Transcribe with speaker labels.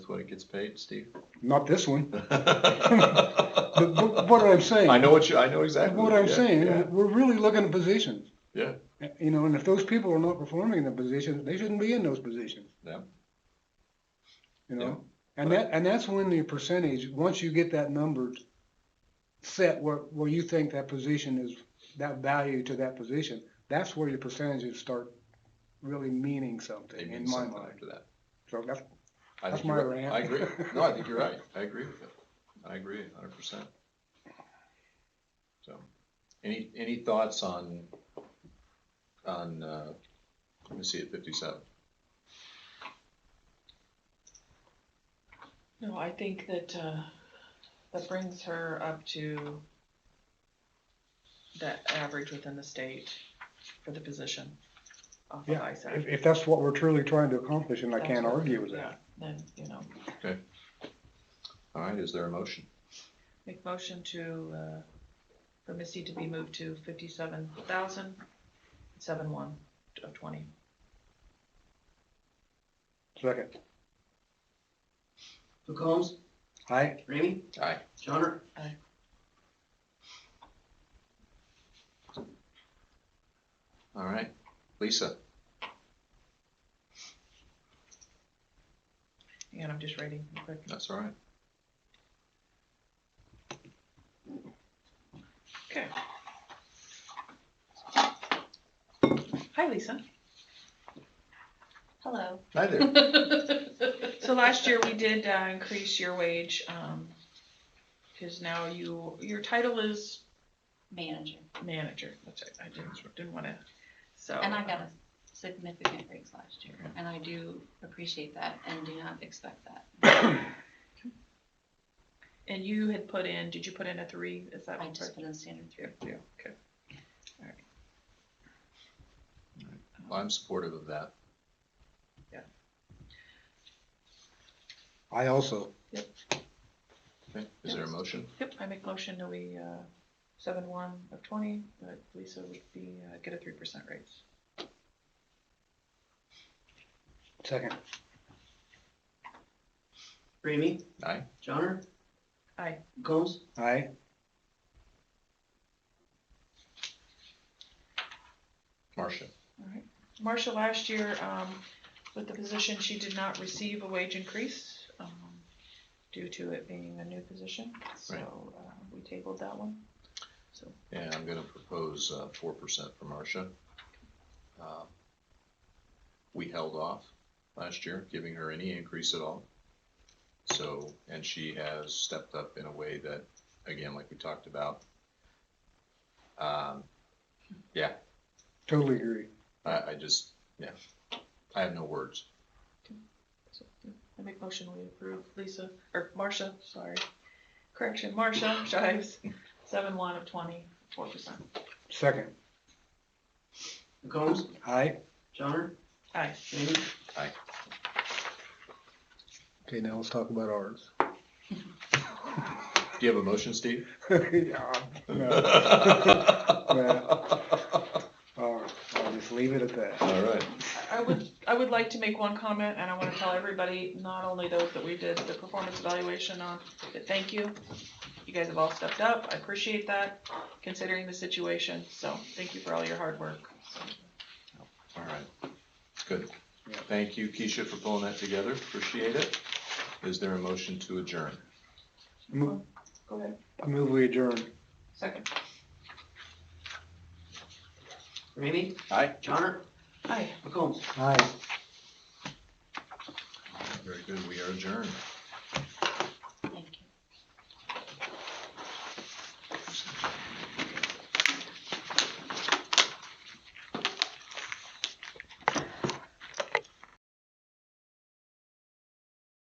Speaker 1: what it gets paid, Steve?
Speaker 2: Not this one.
Speaker 1: I
Speaker 2: But, but what I'm saying.
Speaker 1: know what you, I know exactly.
Speaker 2: What I'm
Speaker 1: yeah,
Speaker 2: saying,
Speaker 1: yeah.
Speaker 2: we're really looking at positions.
Speaker 1: Yeah.
Speaker 2: You know, and if those people are not performing in the positions, they shouldn't be in those positions.
Speaker 1: Yeah.
Speaker 2: You
Speaker 1: Yeah.
Speaker 2: know, and that, and that's when the percentage, once you get that number set where, where you think that position is, that value to that position, that's where your percentages start really meaning
Speaker 1: They
Speaker 2: something
Speaker 1: mean
Speaker 2: in my
Speaker 1: something
Speaker 2: mind.
Speaker 1: after that.
Speaker 2: So that's,
Speaker 1: I
Speaker 2: That's
Speaker 1: think you're
Speaker 2: my
Speaker 1: right.
Speaker 2: rant.
Speaker 1: I agree. No, I think you're right. I agree with it. I agree a hundred percent. So, any, any thoughts on, on, uh, let me see, at fifty-seven?
Speaker 3: No, I think that, uh, that brings her up to that average within the state for the position off of
Speaker 2: Yeah,
Speaker 3: ISAC.
Speaker 2: if, if that's what we're truly trying to accomplish, and I
Speaker 3: That's
Speaker 2: can't
Speaker 3: what-
Speaker 2: argue with
Speaker 3: yeah,
Speaker 2: that.
Speaker 3: Then, you know,
Speaker 1: All right, is there a motion?
Speaker 3: make motion to, uh, for Missy to be moved to fifty-seven thousand, seven one of twenty.
Speaker 2: Second,
Speaker 4: McCombs,
Speaker 2: I,
Speaker 4: Ramey,
Speaker 1: Aye.
Speaker 4: Johnner,
Speaker 1: All right, Lisa,
Speaker 3: And I'm just writing quick.
Speaker 1: that's all right.
Speaker 3: Okay. Hi, Lisa.
Speaker 5: Hello.
Speaker 1: Hi there.
Speaker 3: So last year we did uh, increase your wage, um, because now you, your title is
Speaker 5: Manager.
Speaker 3: manager, which I, I didn't, didn't wanna, so.
Speaker 5: And I got
Speaker 3: uh,
Speaker 5: a significant raise last year, and I do appreciate that and do not expect that.
Speaker 3: And you had put in, did you put in a three? Is that
Speaker 5: I
Speaker 3: what
Speaker 5: just put in standard three. oh
Speaker 3: Yeah, yeah, okay.
Speaker 1: Well, I'm supportive of that.
Speaker 2: I also,
Speaker 1: Okay, is there a motion?
Speaker 3: Yep, I make motion that we, uh, seven one of twenty, that Lisa would be, uh, get a three percent raise.
Speaker 2: second,
Speaker 4: Ramey,
Speaker 1: Aye.
Speaker 4: Johnner.
Speaker 3: Aye.
Speaker 4: McCombs,
Speaker 2: I,
Speaker 1: Marcia,
Speaker 3: Alright, Marcia, last year, um, with the position, she did not receive a wage increase, um, due to it being a new position, so, uh, we tabled that one. So,
Speaker 1: and I'm gonna propose, uh, four percent for Marcia. Uh, We held off last year, giving her any increase at all. So, and she has stepped up in a way that, again, like we talked about. Um, yeah,
Speaker 2: totally agree.
Speaker 1: I, I just, yeah, I have no words.
Speaker 3: so, yeah, I make motion we approve Lisa, or Marcia, sorry, correction, Marcia Shives, seven one of twenty, four percent.
Speaker 2: Second,
Speaker 4: McCombs,
Speaker 2: I.
Speaker 4: Johnner,
Speaker 3: Aye.
Speaker 4: Ramey,
Speaker 2: Okay, now let's talk about ours.
Speaker 1: Do you have a motion, Steve?
Speaker 2: Yeah, no,
Speaker 1: All
Speaker 2: I'll I'll just leave it at that.
Speaker 1: right.
Speaker 3: I would, I would like to make one comment, and I wanna tell everybody, not only those that we did the performance evaluation on, but thank you. You guys have all stepped up, I appreciate that, considering the situation, so thank you for all your hard work.
Speaker 1: All right, good.
Speaker 2: Yeah.
Speaker 1: Thank you, Keisha, for pulling that together, appreciate it. Is there a motion to adjourn?
Speaker 2: Mo-
Speaker 3: Go ahead,
Speaker 2: Move we adjourn.
Speaker 3: second.
Speaker 4: Ramey,
Speaker 1: Aye.
Speaker 4: Johnner,
Speaker 3: Aye.
Speaker 4: McCombs.
Speaker 2: Aye.
Speaker 1: Very good, we are adjourned.